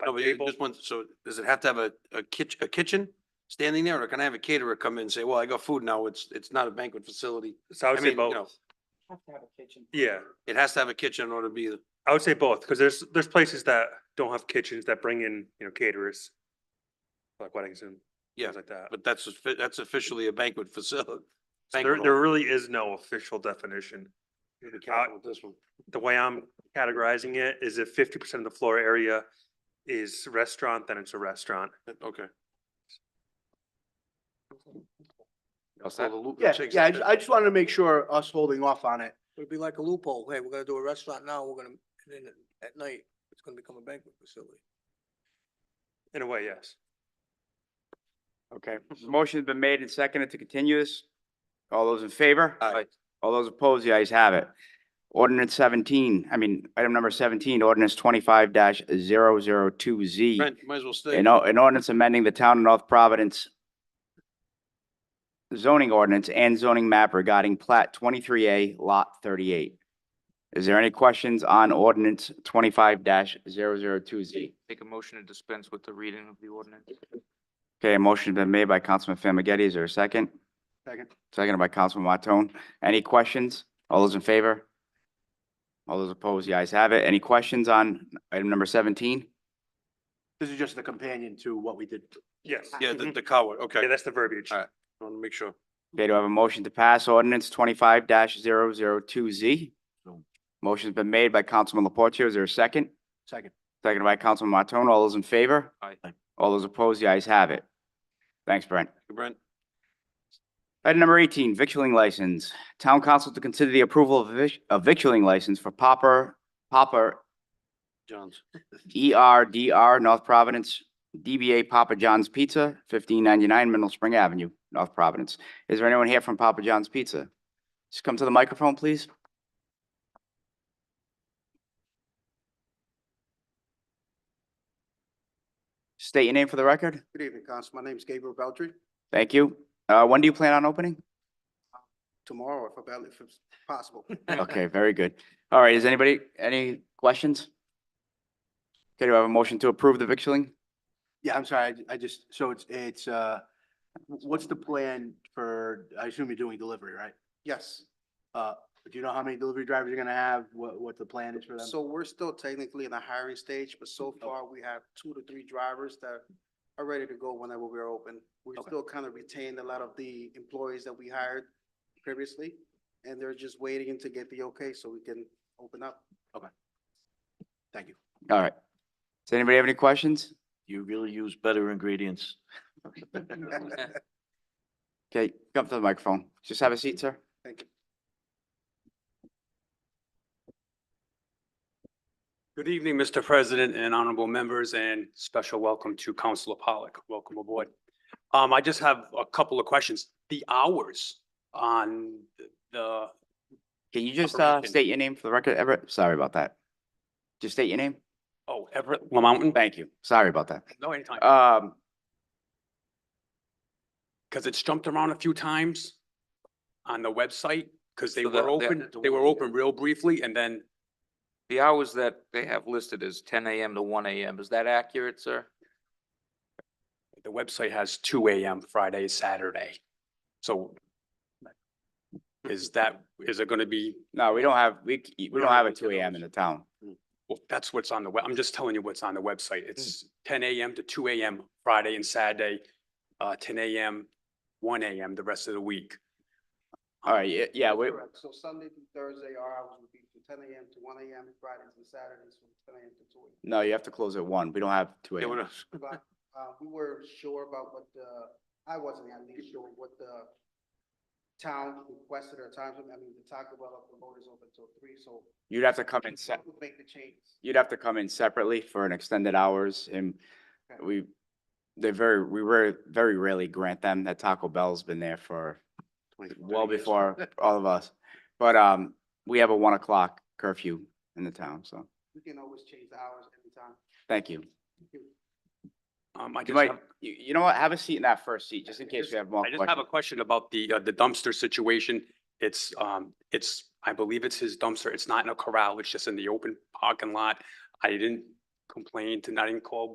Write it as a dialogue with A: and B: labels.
A: No, but
B: table?
A: this one, so does it have to have a, a kitchen, a kitchen standing there, or can I have a caterer come in and say, well, I got food now, it's, it's not a banquet facility?
B: So I
A: I
B: would say
A: mean, you know,
B: both.
C: Have to have a kitchen.
B: Yeah,
A: it has to have a kitchen in order to be, the-
B: I would say both, because there's, there's places that don't have kitchens that bring in, you know, caterers. Like weddings and
A: Yeah,
B: things like that.
A: but that's, offi- that's officially a banquet facility.
B: So There, there really is no official definition. I-
A: This one.
B: the way I'm categorizing it is if fifty percent of the floor area is restaurant, then it's a restaurant.
A: Okay.
B: set?
D: Uh, Yeah, yeah, I, ju- I just wanted to make sure us holding off on it.
E: It'd be like a loophole. Hey, we're gonna do a restaurant now, we're gonna, and then at night, it's gonna become a banquet facility.
B: In a way, yes.
F: Okay, motion's been made and seconded to continue this. All those in favor?
A: Aye.
F: All those opposed, the ayes have it. Ordinance seventeen, I mean, item number seventeen, ordinance twenty-five 2 Z.
A: Brent, you might as well stay.
F: An, o- an ordinance amending the town of North Providence zoning ordinance and zoning map regarding plat twenty-three A, lot thirty-eight. Is there any questions on ordinance twenty-five 2 Z?
G: Make a motion to dispense with the reading of the ordinance.
F: Okay, a motion's been made by Councilman Famagetti. Is there a second?
D: Second.
F: Seconded by Councilman Martone. Any questions? All those in favor? All those opposed? The ayes have it. Any questions on item number seventeen?
D: This is just the companion to what we did.
B: Yes.
A: Yeah, the, the coward, okay,
B: Yeah, that's the verbiage.
A: Alright. I want to make sure.
F: Okay, do I have a motion to pass ordinance twenty-five 2 Z? Motion's been made by Councilman Laporte. Is there a second?
D: Second.
F: Seconded by Councilman Martone. All those in favor?
G: Aye.
F: All those opposed? The ayes have it. Thanks, Brent.
A: Brent,
F: Item number eighteen, victualling license. Town council to consider the approval of vic- a victualling license for Popper, Popper
A: Johns,
F: E R D R North Providence, DBA Papa John's Pizza, fifteen ninety-nine Middle Spring Avenue, North Providence. Is there anyone here from Papa John's Pizza? Just come to the microphone, please. State your name for the record.
H: Good evening, Council. My name's Gabriel Beltry.
F: Thank you. Uh, when do you plan on opening?
H: Tomorrow, if about, if it's possible.
F: Okay, very good. All right, is anybody, any questions? Okay, do I have a motion to approve the victualling?
D: Yeah, I'm sorry, I ju- I just, so it's, it's, uh, w- what's the plan for, I assume you're doing delivery, right?
H: Yes.
D: Uh, do you know how many delivery drivers you're gonna have, what, what the plan is for them?
H: So we're still technically in the hiring stage, but so far we have two to three drivers that are ready to go whenever we're open. We
D: Okay.
H: still kind of retained a lot of the employees that we hired previously, and they're just waiting to get the okay so we can open up.
D: Thank you.
F: All right. Does anybody have any questions?
I: You really use better ingredients.
F: Okay, come to the microphone. Just have a seat, sir.
H: Thank you.
B: Good evening, Mr. President and honorable members, and special welcome to Councilor Pollock. Welcome aboard. Um, I just have a couple of questions. The hours on the,
F: Can you just uh
B: Operation.
F: state your name for the record, Everett? Sorry about that. Just state your name.
B: oh, Everett Lamountain? Uh,
F: Thank you. Sorry about that.
B: No, anytime.
F: Um,
B: because it's jumped around a few times on the website, because they
G: So
B: were
G: the- the-
B: open,
G: the
B: they were
G: one-
B: open real briefly, and then
G: The hours that they have listed is ten AM to one AM. Is that accurate, sir?
B: the website has two AM Friday, Saturday. So is that, is it gonna be,
F: no, we don't have, we, c- we don't have a two AM in the town.
B: well, that's what's on the web, I'm just telling you what's on the
F: Hmm.
B: website. It's ten AM to two AM Friday and Saturday, uh, ten AM, one AM the rest of the week.
F: All right, yeah, yeah, we,
H: Correct. So Sunday through Thursday, our hours would be from ten AM to one AM, Fridays and Saturdays from ten AM to two AM.
F: no, you have to close at one. We don't have two
A: yeah, what
F: AM.
A: else?
H: But, uh, we were sure about what the, I wasn't at least sure what the town requested or times, I mean, the Taco Bell up the road is open till three, so.
F: You'd have to come in se-
H: We'll Make the changes.
F: you'd have to come in separately for an extended hours and
H: Okay.
F: we, they very, we were very rarely grant them. That Taco Bell's been there for well before all of us. But um, we have a one o'clock curfew in the town, so
H: We can always change the hours every time.
F: thank you.
B: Um, I
F: You
B: just
F: might,
B: have,
F: you, you know what? Have a seat in that first seat, just in case we have more
B: I just have a
F: questions.
B: question about the, uh, the dumpster situation. It's, um, it's, I believe it's his dumpster. It's not in a corral. It's just in the open parking lot. I didn't complain to, I didn't call